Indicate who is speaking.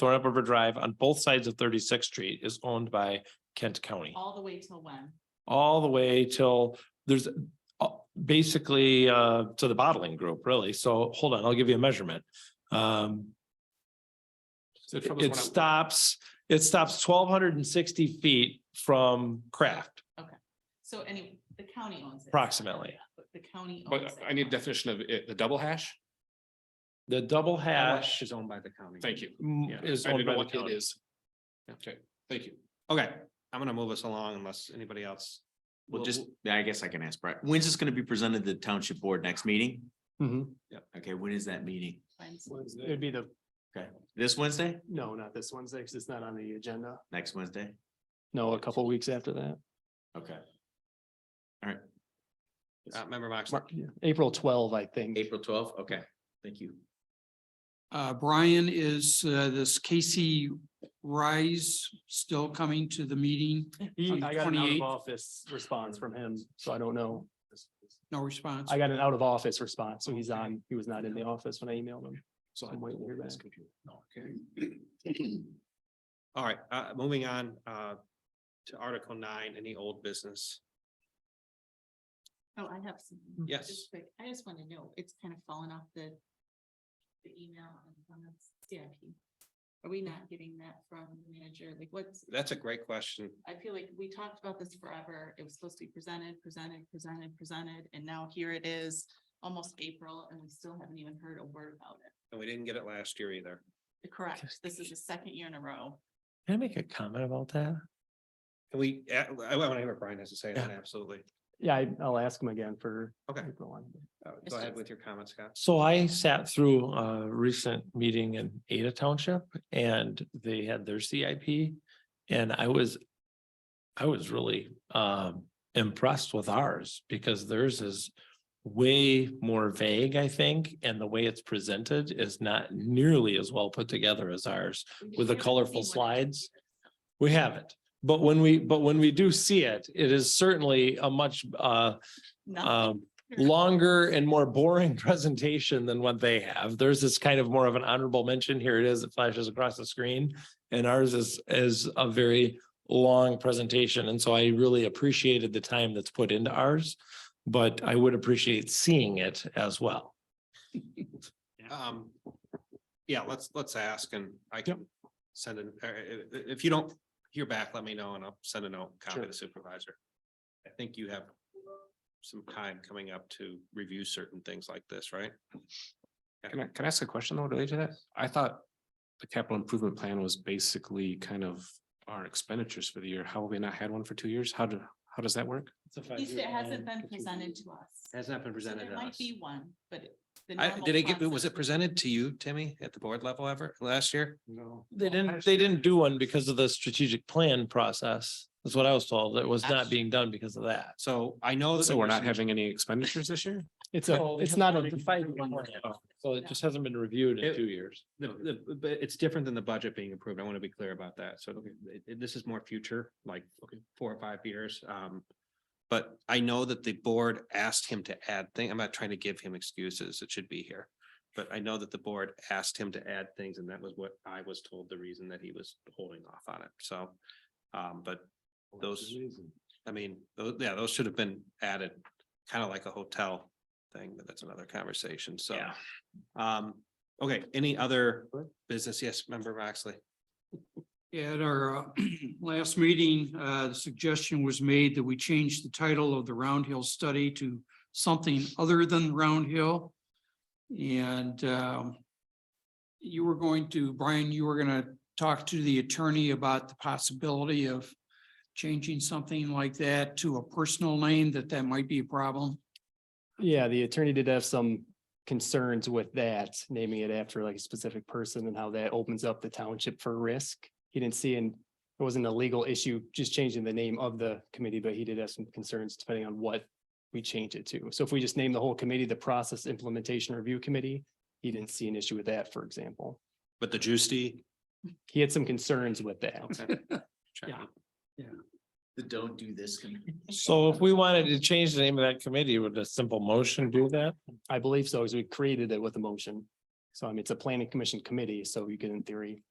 Speaker 1: Thorn River Drive on both sides of Thirty-Sixth Street is owned by Kent County.
Speaker 2: all the way till when?
Speaker 1: all the way till there's uh, basically uh to the bottling group, really. So hold on, I'll give you a measurement. Um,
Speaker 3: The trouble is
Speaker 1: it
Speaker 3: when I-
Speaker 1: stops, it stops twelve hundred and sixty feet from Craft.
Speaker 2: So any, the county owns it.
Speaker 1: Approximately.
Speaker 2: But The county. owns
Speaker 3: But
Speaker 2: it.
Speaker 3: I need a definition of it, the double hash.
Speaker 1: The double hash
Speaker 4: Is owned by the county.
Speaker 3: Thank you.
Speaker 1: mm,
Speaker 3: Yeah,
Speaker 1: is
Speaker 3: I
Speaker 1: owned
Speaker 3: didn't
Speaker 1: by
Speaker 3: know
Speaker 1: the
Speaker 3: what it
Speaker 1: county.
Speaker 3: is. Okay, thank you.
Speaker 4: Okay, I'm gonna move us along unless anybody else.
Speaker 5: Well,
Speaker 4: Well,
Speaker 5: just, I guess I can ask Brett, when's this gonna be presented to the township board next meeting?
Speaker 6: Mhm.
Speaker 5: Okay, when is that meeting?
Speaker 2: Fine.
Speaker 6: It'd be the,
Speaker 5: Okay, this Wednesday,
Speaker 6: no, not this Wednesday, because it's not on the agenda.
Speaker 5: next Wednesday?
Speaker 6: No, a couple weeks after that.
Speaker 5: Okay,
Speaker 4: Uh, member Moxley.
Speaker 6: Mar- yeah, April twelve, I think.
Speaker 5: April twelfth, okay, thank you.
Speaker 7: Uh, Brian, is uh, this Casey Rise still coming to the meeting?
Speaker 6: He,
Speaker 7: On
Speaker 6: I got an out
Speaker 7: 28th?
Speaker 6: of office response from him, so I don't know.
Speaker 7: No response?
Speaker 6: I got an out of office response, so he's on, he was not in the office when I emailed him.
Speaker 4: So
Speaker 6: I'm waiting to hear back.
Speaker 4: Okay. All right, uh, moving on, uh, to Article nine, any old business?
Speaker 2: Oh, I have some.
Speaker 4: Yes.
Speaker 2: just quick. I just want to know, it's kind of fallen off the, the email and from the CIP. Are we not getting that from the manager? Like what's,
Speaker 4: That's a great question.
Speaker 2: I feel like we talked about this forever. It was supposed to be presented, presented, presented, presented, and now here it is, almost April, and we still haven't even heard a word about it.
Speaker 4: And we didn't get it last year either.
Speaker 2: Correct. This is the second year in a row.
Speaker 1: Can I make a comment about that?
Speaker 4: Can we, uh, I want to hear what Brian has to say, then absolutely.
Speaker 6: Yeah, I- I'll ask him again for.
Speaker 4: Okay.
Speaker 6: April one.
Speaker 4: Uh,
Speaker 2: It's
Speaker 4: Go ahead
Speaker 2: just-
Speaker 4: with your comments, Scott.
Speaker 1: So I sat through a recent meeting in Ada Township and they had their CIP. And I was, I was really um impressed with ours because theirs is way more vague, I think. And the way it's presented is not nearly as well put together as ours. With the
Speaker 2: We haven't seen
Speaker 1: colorful
Speaker 2: what it
Speaker 1: slides.
Speaker 2: is.
Speaker 1: We haven't. But when we, but when we do see it, it is certainly a much uh
Speaker 2: Nothing.
Speaker 1: um longer and more boring presentation than what they have. Theirs is kind of more of an honorable mention. Here it is, it flashes across the screen. And ours is is a very long presentation. And so I really appreciated the time that's put into ours. But I would appreciate seeing it as well.
Speaker 4: Um, yeah, let's, let's ask and I can send an, uh, i- i- if you don't hear back, let me know and I'll send a note, copy
Speaker 6: Sure.
Speaker 4: the supervisor. I think you have some time coming up to review certain things like this, right?
Speaker 3: Can I, can I ask a question though related to that? I thought the capital improvement plan was basically kind of our expenditures for the year. How have we not had one for two years? How do, how does that work?
Speaker 2: At least it hasn't been presented to us.
Speaker 4: Has not been
Speaker 2: So
Speaker 4: presented
Speaker 2: There
Speaker 4: to
Speaker 2: might
Speaker 4: us.
Speaker 2: be one, but. it- the
Speaker 4: I,
Speaker 2: normal
Speaker 4: did it get,
Speaker 2: process-
Speaker 4: was it presented to you, Timmy, at the board level ever last year?
Speaker 3: No.
Speaker 1: They didn't, they didn't do one because of the strategic plan process. That's what I was told. It was not being done because of that.
Speaker 4: So I know. that
Speaker 3: So
Speaker 4: there
Speaker 3: we're
Speaker 4: was
Speaker 3: not
Speaker 4: some-
Speaker 3: having any expenditures this year?
Speaker 6: It's a, it's not a.
Speaker 1: So it just hasn't been reviewed in
Speaker 4: It-
Speaker 1: two years.
Speaker 4: The, the, but it's different than the budget being approved. I want to be clear about that. So it- it- this is more future, like four or five years. Um, but I know that the board asked him to add thing. I'm not trying to give him excuses. It should be here. But I know that the board asked him to add things and that was what I was told the reason that he was holding off on it. So, um, but those, I mean, tho- yeah, those should have been added, kind of like a hotel thing, but that's another conversation. So.
Speaker 1: Yeah.
Speaker 4: Um, okay, any other business? Yes, member Moxley.
Speaker 7: At our uh, last meeting, uh, the suggestion was made that we change the title of the Round Hill study to something other than Round Hill. And um, you were going to, Brian, you were going to talk to the attorney about the possibility of changing something like that to a personal name, that that might be a problem.
Speaker 6: Yeah, the attorney did have some concerns with that, naming it after like a specific person and how that opens up the township for risk. He didn't see, and it wasn't a legal issue, just changing the name of the committee, but he did have some concerns depending on what we change it to. So if we just name the whole committee, the Process Implementation Review Committee, he didn't see an issue with that, for example.
Speaker 4: But the juicy.
Speaker 6: He had some concerns with that.
Speaker 4: Yeah.
Speaker 5: The don't do this. committee.
Speaker 1: So if we wanted to change the name of that committee, would a simple motion do that?
Speaker 6: I believe so, because we created it with a motion. So I mean, it's a planning commission committee, so you could in theory